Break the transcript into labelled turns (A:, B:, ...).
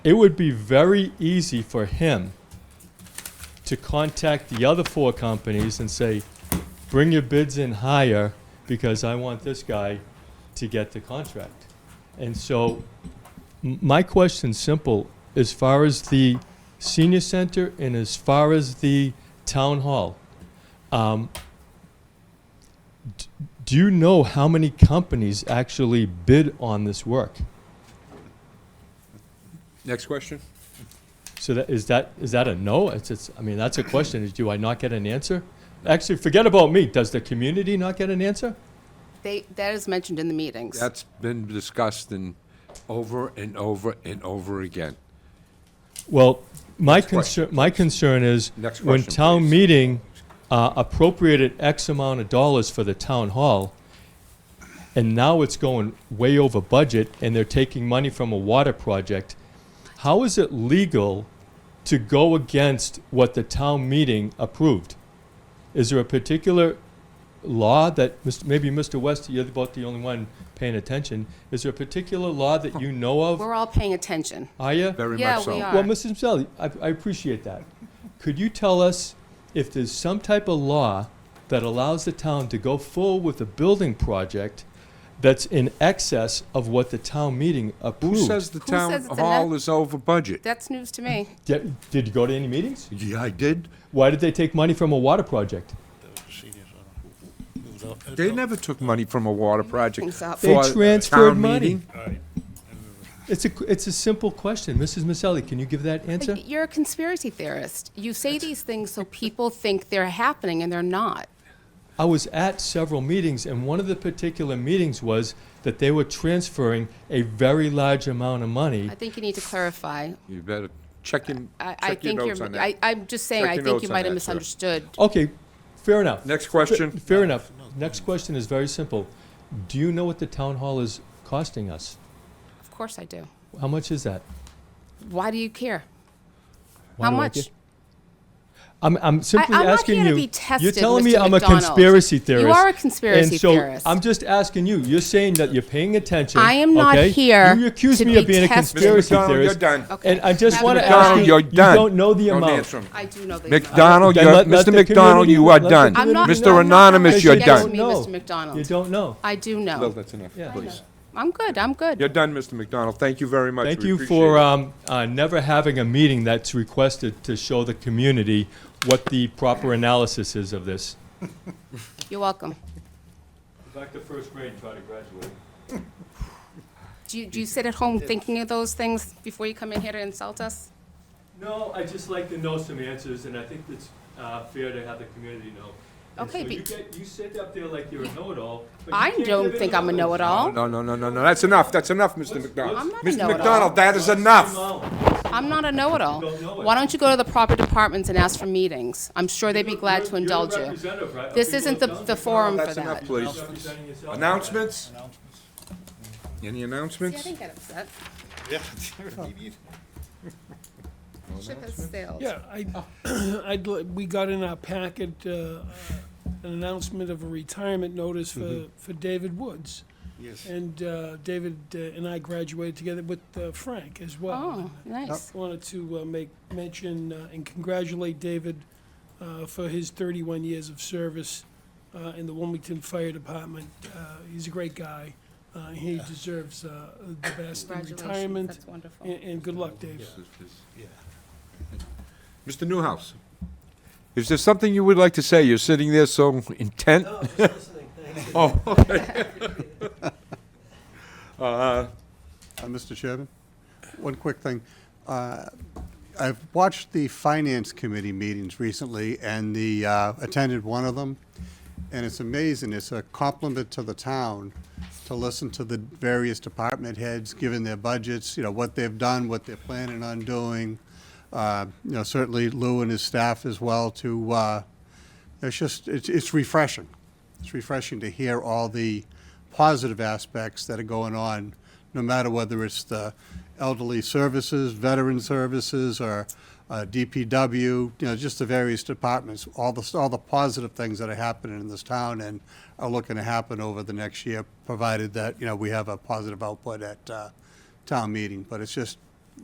A: it would be very easy for him to contact the other four companies and say, bring your bids in higher because I want this guy to get the contract. And so m- my question's simple, as far as the senior center and as far as the town hall, um, d- do you know how many companies actually bid on this work?
B: Next question?
A: So that, is that, is that a no? It's, it's, I mean, that's a question, is do I not get an answer? Actually, forget about me, does the community not get an answer?
C: They, that is mentioned in the meetings.
B: That's been discussed and over and over and over again.
A: Well, my
B: question,
A: concern, my concern is,
B: Next
A: when
B: question,
A: town
B: please.
A: meeting uh, appropriated X amount of dollars for the town hall, and now it's going way over budget, and they're taking money from a water project, how is it legal to go against what the town meeting approved? Is there a particular law that, Mr. maybe Mr. West, you're about the only one paying attention, is there a particular law that you know of?
C: We're all paying attention.
A: Are you?
B: Very
C: Yeah,
B: much so.
C: we are.
A: Well, Mrs. Maselli, I, I appreciate that. Could you tell us if there's some type of law that allows the town to go full with a building project that's in excess of what the town meeting
B: Who
A: approved?
B: says the
C: Who
B: town
C: says it's a
B: hall
C: net-
B: is over budget?
C: That's news to me.
A: Did, did you go to any meetings?
B: Yeah, I did.
A: Why did they take money from a water project?
B: They never took money from a water project
C: Things up.
A: They
B: for a
A: transferred
B: town
A: money.
B: meeting.
A: It's a, qu- it's a simple question. Mrs. Maselli, can you give that answer?
C: You're a conspiracy theorist. You say these things so people think they're happening and they're not.
A: I was at several meetings, and one of the particular meetings was that they were transferring a very large amount of money.
C: I think you need to clarify.
B: You better check in,
C: I, I
B: check your
C: think
B: notes on
C: you're, I,
B: that.
C: I'm just saying,
B: Check
C: I
B: your
C: think
B: notes
C: you
B: on
C: might have
B: that, sir.
C: misunderstood.
A: Okay, fair enough.
B: Next question?
A: Fair enough. Next question is very simple. Do you know what the town hall is costing us?
C: Of course I do.
A: How much is that?
C: Why do you care?
A: Why
C: How
A: do I
C: much?
A: get- I'm, I'm simply
C: I'm not
A: asking
C: here to
A: you.
C: be tested,
A: you're telling me
C: Mr.
A: I'm
C: McDonald.
A: a conspiracy
C: You
A: theorist.
C: are a conspiracy
A: and so
C: theorist.
A: I'm just asking you. You're saying that you're paying attention.
C: I am not
A: okay?
C: here
A: You accuse
C: to
A: me
C: be
A: of being
C: tested.
A: a
B: Mr.
A: conspiracy
B: McDonald, you're
A: theorist.
B: done.
C: Okay.
A: And I just
C: Mr.
A: want to ask
B: McDonald,
A: you.
B: you're
A: you
B: done.
A: don't know the
B: Don't
A: amount.
B: answer 'em.
C: I do know the amount.
B: McDonald,
A: Then
B: you're,
A: let- let
B: Mr.
A: the
B: McDonald,
A: community-
B: you are
A: let the
B: done.
A: I'm
C: not-
B: Mr.
C: I'm not
B: Anonymous,
C: gonna
B: you're
C: let you
B: done.
C: me,
A: No.
C: Mr. McDonald.
A: You don't know.
C: I do
B: Bill,
C: know.
B: that's enough,
A: Yeah.
B: please.
C: I'm good, I'm
B: You're
C: good.
B: done, Mr. McDonald. Thank you very much.
A: Thank
B: We
A: you
B: appreciate
A: for
B: it.
A: um, uh, never having a meeting that's requested to show the community what the proper analysis is of this.
C: You're welcome.
A: Back to first grade, try to graduate.
C: Do you, do you sit at home thinking of those things before you come in here to insult us?
A: No, I just like to know some answers, and I think it's uh, fair to have the community know. And
C: Okay,
A: so
C: be-
A: you get, you sit up there like you're a know-it-all, but you
C: I
A: can't
C: don't
A: give
C: think I'm a
A: any knowledge.
C: know-it-all.
B: No, no, no, no, no, that's enough, that's enough, Mr. McDonald.
C: I'm not a
B: Mr.
C: know-it-all.
B: McDonald, that is enough.
C: I'm not a know-it-all.
A: You don't know it.
C: Why don't you go to the proper departments and ask for meetings? I'm sure they'd be
A: You're-
C: glad to
A: you're-
C: indulge
A: You're a
C: you.
A: representative, right? of
C: This
A: people
C: isn't the,
A: of
C: the
A: Duncan.
C: forum for
B: That's enough,
C: that.
B: please.
A: Representing yourself.
B: Announcements?
D: announcements?
B: Any
C: See, I
B: announcements?
C: didn't get upset.
D: Yeah.
C: Ship has sailed.
E: Yeah, I, I'd, li- we got in our packet, uh, an announcement of a retirement notice for, for David Woods.
D: Yes.
E: And, uh, David uh, and I graduated together with, uh, Frank as well.
C: Oh, nice.
E: I Wanted to, uh, make mention uh, and congratulate David, uh, for his thirty-one years of service, uh, in the Wilmington Fire Department. Uh, he's a great guy. Uh, he deserves, uh, the best in
C: Congratulations,
E: retirement.
C: that's wonderful.
E: And, and good luck, Dave.
B: Mr. Newhouse, is there something you would like to say? You're sitting there so intent. Oh, okay. Uh,
F: Uh, Mr. Chairman, one quick thing. Uh, I've watched the Finance Committee meetings recently and the, uh, attended one of them, and it's amazing. It's a compliment to the town to listen to the various department heads, given their budgets, you know, what they've done, what they're planning on doing. Uh, You know, certainly Lou and his staff as well to, uh, it's just, it's it's refreshing. It's refreshing to hear all the positive aspects that are going on, no matter whether it's the elderly services, veteran services, or uh, DPW, you know, just the various departments, all the, all the positive things that are happening in this town and are looking to happen over the next year, provided that, you know, we have a positive output at uh, town meeting. But it's just,